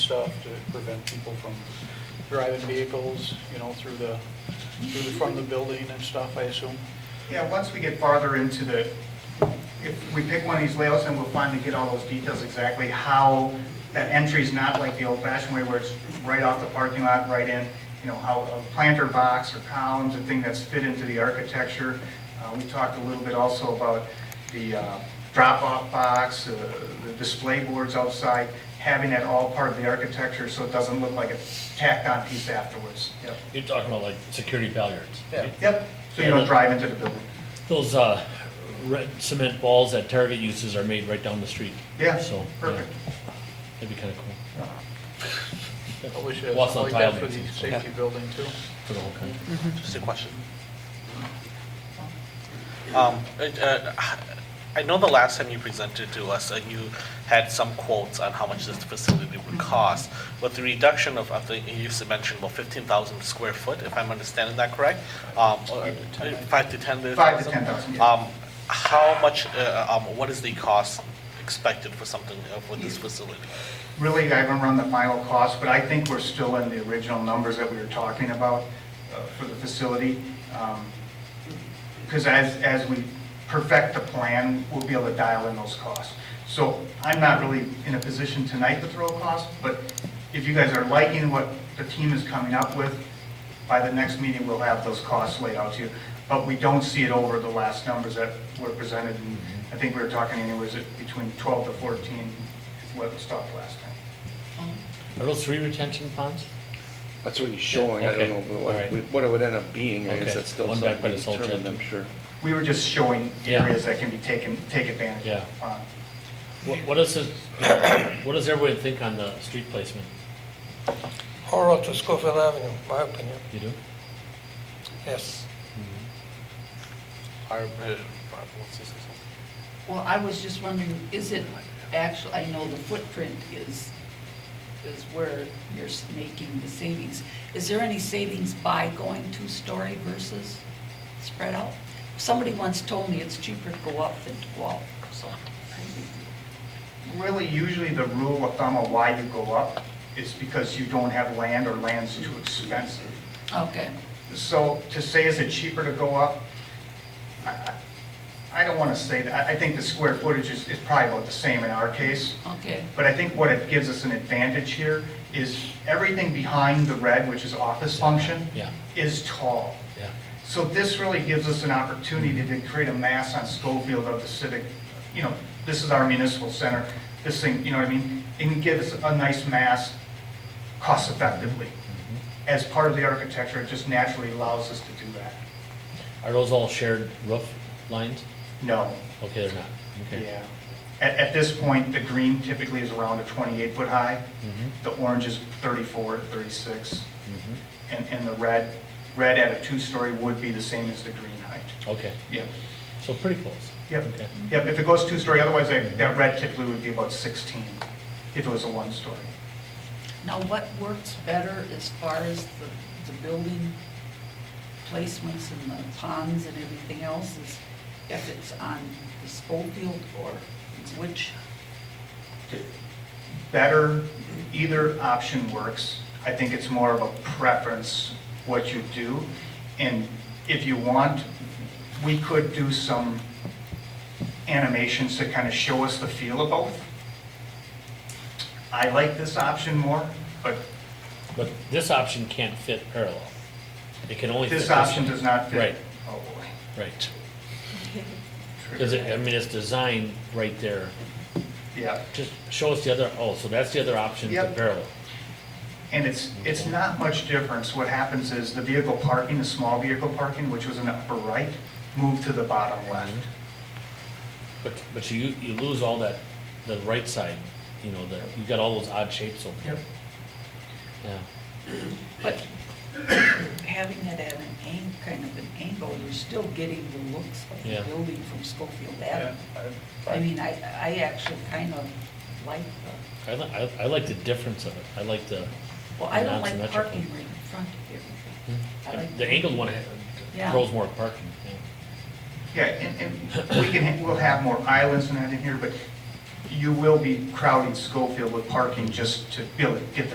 stuff to prevent people from driving vehicles, you know, through the, through the front of the building and stuff, I assume. Yeah, once we get farther into the, if we pick one of these layouts, then we'll finally get all those details exactly how that entry's not like the old-fashioned way where it's right off the parking lot, right in, you know, how a planter box or columns, a thing that's fit into the architecture. Uh, We talked a little bit also about the uh, drop-off box, uh, the display boards outside, having that all part of the architecture so it doesn't look like a tacked-on piece afterwards. Yep. You're talking about like security bollards. right? Yep, so you don't drive into the building. Those uh, red cement balls that Target uses are made right down the street. Yeah, So, yeah, perfect. That'd be kind of cool I wish it was Well, it's on like that tile for the mixing, so- safety building too. for the whole country. Just a question. Um, uh, uh, I know the last time you presented to us, uh, you had some quotes on how much this facility would cost. With the reduction of, I think you s- mentioned about 15,000 square foot, if I'm understanding that correct? Um, or, uh, Five to 10,000? Five to 10,000, yeah. Um, How much, uh, um, what is the cost expected for something, uh, for this facility? Really, I haven't run the final cost, but I think we're still in the original numbers that we were talking about uh, for the facility. Because as, as we perfect the plan, we'll be able to dial in those costs. So I'm not really in a position tonight to throw a cost, but if you guys are liking what the team is coming up with, by the next meeting, we'll have those costs laid out to you. But we don't see it over the last numbers that were presented, and I think we were talking anyways at between 12 to 14, what was talked last time. Are those three retention ponds? That's what he's showing, I Okay. don't know, but All right. what- what it would end up being, I Okay. guess that's still One back by something the to salt determine, shed. I'm sure. We were just showing Yeah. areas that can be taken, take advantage Yeah. of. Uh, What what is this, what does everyone think on the street placement? Or up to Schofield Avenue, my opinion, You do? yes. Our, uh, what's this? Well, I was just wondering, is it actually, I know the footprint is, is where you're s- making the savings. Is there any savings by going two-story versus spread out? Somebody once told me it's cheaper to go up than to go out, so. Really, usually the rule of thumb of why you go up is because you don't have land or land's too expensive. Okay, So to say, is it cheaper to go up? I- I I don't want to say that. I- I think the square footage is is probably about the same in our case. okay, But I think what it gives us an advantage here is everything behind the red, which is office function, Yeah. is tall. Yeah. So this really gives us an opportunity to create a mass on Schofield of the civic, you know, this is our municipal center, this thing, you know what I mean? It can give us a nice mass cost effectively. As part of the architecture, it just naturally allows us to do that. Are those all shared roof lines? No, Okay, they're not. Okay. yeah. At, at this point, the green typically is around a 28 foot high. The orange is 34, 36. Mm-hmm. And, and the red, red at a two-story would be the same as the green height. Okay, Yep, so pretty close. yep, Okay. yep. If it goes two-story, otherwise that, that red typically would be about 16 if it was a one-story. now what works better as far as the, the building placements and the ponds and everything else is if it's on the Schofield or which? Better, either option works. I think it's more of a preference what you do. And if you want, we could do some animations to kind of show us the feel of both. I like this option more, but But this option can't fit parallel. It can only fit this this. option does not fit. Right. Oh, boy. Right. Because, Trigger. I mean, it's designed right there. Yeah. Just show us the other, oh, so that's the other option, the Yep. parallel. And it's, it's not much difference. What happens is the vehicle parking, the small vehicle parking, which was in the upper right, moved to the bottom left. But, but you, you lose all that, the right side, you know, the, you've got all those odd shapes over there. Yeah. But having it at an ang, kind of an angle, you're still getting the looks of Yeah. the building from Schofield Yeah, Avenue. I mean, I, I actually kind of like the, I like, I, I like the difference of it. I like the. well, I don't like non-symmetrical. parking right in front of everything. I like- Hmm. The angled one ha- Yeah. throws more parking, yeah. Yeah, and, and we can, we'll have more islands and that in here, but you will be crowding Schofield with parking just to be able to get the